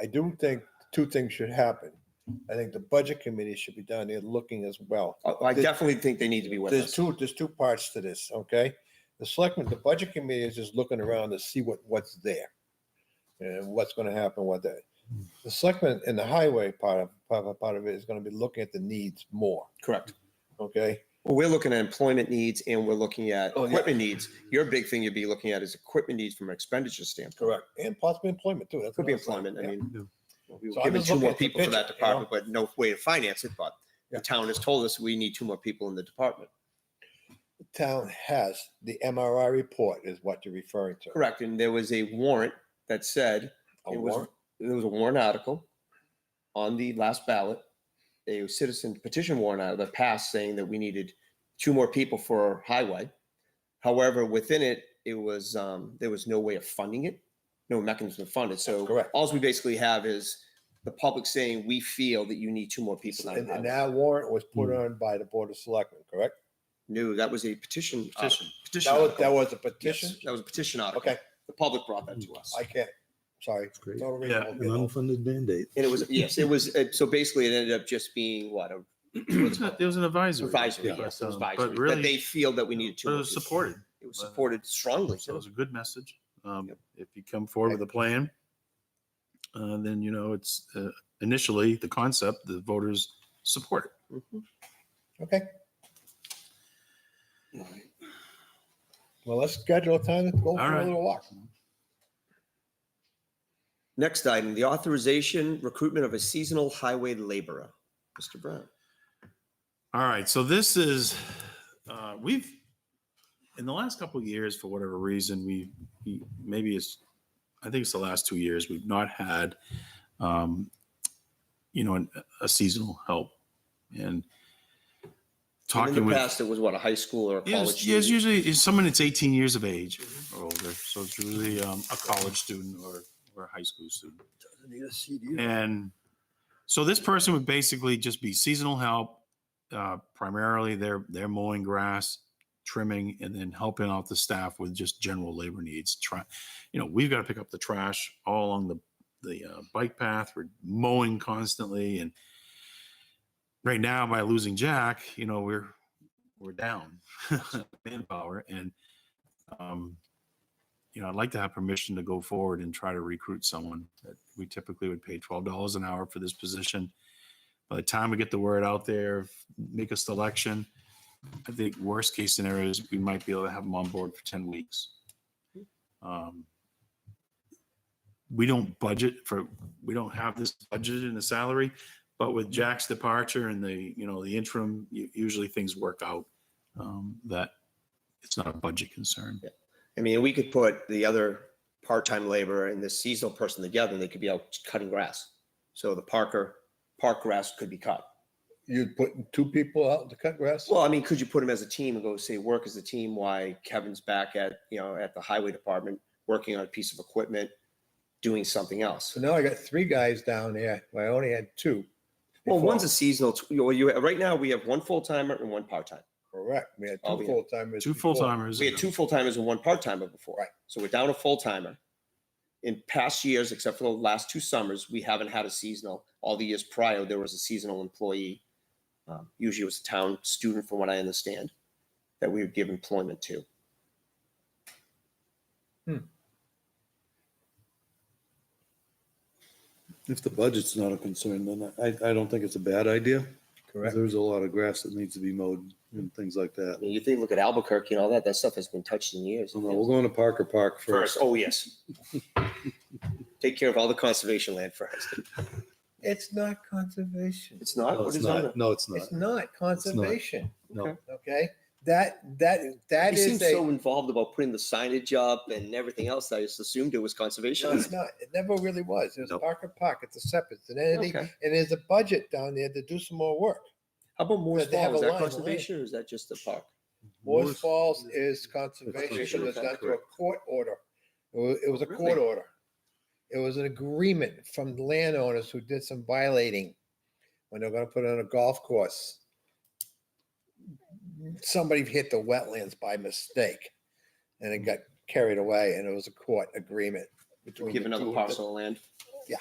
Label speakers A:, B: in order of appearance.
A: I do think two things should happen. I think the budget committee should be down there looking as well.
B: I I definitely think they need to be with
A: There's
B: us.
A: two, there's two parts to this, okay? The selectmen, the budget committee is just looking around to see what, what's there. And what's gonna happen with that. The selectmen and the highway part of, part of, part of it is gonna be looking at the needs more,
B: Correct.
A: okay?
B: Well, we're looking at employment needs and we're looking at
A: Oh, yeah.
B: equipment needs. Your big thing you'd be looking at is equipment needs from an expenditure standpoint.
A: Correct. And possibly employment too. That's
B: Could be
A: another thing,
B: employment. I
A: yeah.
B: mean, we
A: So
B: were
A: I'm
B: given
A: just
B: two
A: looking
B: more
A: at the
B: people for that
A: picture, you know?
B: department, but no way to finance it. But
A: Yeah.
B: the town has told us we need two more people in the department.
A: The Town has, the MRI report is what you're referring to.
B: Correct. And there was a warrant that said
A: A
B: It was-
A: warrant.
B: there was a warrant article on the last ballot, a citizen petition warrant out that passed saying that we needed two more people for highway. However, within it, it was, um, there was no way of funding it, no mechanism to fund it. So
A: Correct.
B: alls we basically have is the public saying, we feel that you need two more people. on
A: And, and
B: highway."
A: that warrant was put on by the Board of Selectmen, correct?
B: No, that was a petition. uh,
C: Petition.
B: Petition.
A: That was, that
B: article.
A: was a
B: Yes,
A: petition?
B: That was a petition article.
A: Okay,
B: The public brought that to us.
A: I can't, sorry.
D: That's great.
A: Total
C: Yeah,
D: An
A: removal.
D: unfunded mandate.
B: And it was, yes, it was, uh, so basically it ended up just being what, a
C: It was a- it was an advisory.
B: advisory,
C: but,
B: yes, it was
C: um,
B: advisory,
C: But
B: that
C: really,
B: they
C: it
B: feel that we needed two. more
C: was
B: people.
C: supported.
B: It was
C: by the-
B: supported strongly.
C: So it was a good message. Um,
B: Yep.
C: If you come forward with a plan, uh, then, you know, it's uh, initially the concept, the voters support it.
B: Mhm.
A: Okay, well, let's schedule a time to go for a
C: right.
A: little walk.
B: Next item, the authorization recruitment of a seasonal highway laborer. Mr. Brown.
C: All right, so this is, uh, we've, in the last couple of years, for whatever reason, we, we- maybe it's, I think it's the last two years, we've not had, um, you know, an- a seasonal help and
B: And
C: talking
B: In the
C: with.
B: past, it was what, a high school or a
C: Yeah,
B: college
C: it's, yeah, it's
B: student?
C: usually it's someone that's 18 years of age or older. So it's usually um, a college student or, or a high school student. And so this person would basically just be seasonal help. Uh, primarily, they're they're mowing grass, trimming, and then helping out the staff with just general labor needs. Try, you know, we've got to pick up the trash all along the the uh, bike path. We're mowing constantly, and right now by losing Jack, you know, we're we're down manpower and um you know i'd like to have permission to go forward and try to recruit someone that we typically would pay $12 an hour for this position by the time we get the word out there make a selection i think worst case scenario is we might be able to have them on board for 10 weeks um, we don't budget for we don't have this budget in the salary but with jack's departure and the you know the interim u- usually things work out um, that it's not a budget concern.
B: I mean, we could put the other part-time laborer and the seasonal person together and they could be out cutting grass. So the Parker, park grass could be cut.
A: You'd put two people out to cut grass?
B: Well, I mean, could you put them as a team and go say, work as a team? Why Kevin's back at, you know, at the highway department, working on a piece of equipment, doing something else.
A: So now I got three guys down there, I only had two.
B: Well,
A: before.
B: one's a seasonal, t- well, you, right now we have one full timer and one part time.
A: Correct, we had
B: Oh,
A: two
B: yeah.
A: full timers.
C: Two full timers.
B: We had two full timers and one part timer before.
A: Right.
B: So we're down a full timer. In past years, except for the last two summers, we haven't had a seasonal. All the years prior, there was a seasonal employee. Um, Usually it was a town student, from what I understand, that we would give employment to.
D: If the budget's not a concern, then I, I don't think it's a bad idea. 'cause
A: Correct,
D: There's a lot of grass that needs to be mowed and things like that.
B: I mean, you think, look at Albuquerque and all that, that stuff has been touched in years.
D: So no, we're going to Parker Park
B: First,
D: first.
B: oh, yes. Take care of all the conservation land first.
A: it's not conservation,
B: It's not,
D: No,
B: what
D: it's
B: is on it?
D: not. No, it's not.
A: it's not conservation,
D: No.
A: okay? That, that, that
B: You seem
A: is a,
B: so involved about putting the signage up and everything else. I just assumed it was
A: no,
B: conservation.
A: it's not, it never really was, it was
D: Nope.
A: Parker Park, it's a separate, it's an entity,
B: Okay.
A: and there's a budget down there to do some more work.
B: How about Moore's
A: But they have
B: Falls? Is
A: a
B: that
A: line, a lane.
B: conservation or is that just a park?
A: Moore's Falls is conservation,
D: conservation,
A: it was done through a
D: correct.
A: court order. It was, it was a court
B: Really?
A: order. It was an agreement from the landowners who did some violating when they're gonna put on a golf course. Somebody hit the wetlands by mistake and it got carried away and it was a court agreement. between
B: Give
A: the two
B: another
A: of them.
B: parcel of land?
A: Yeah,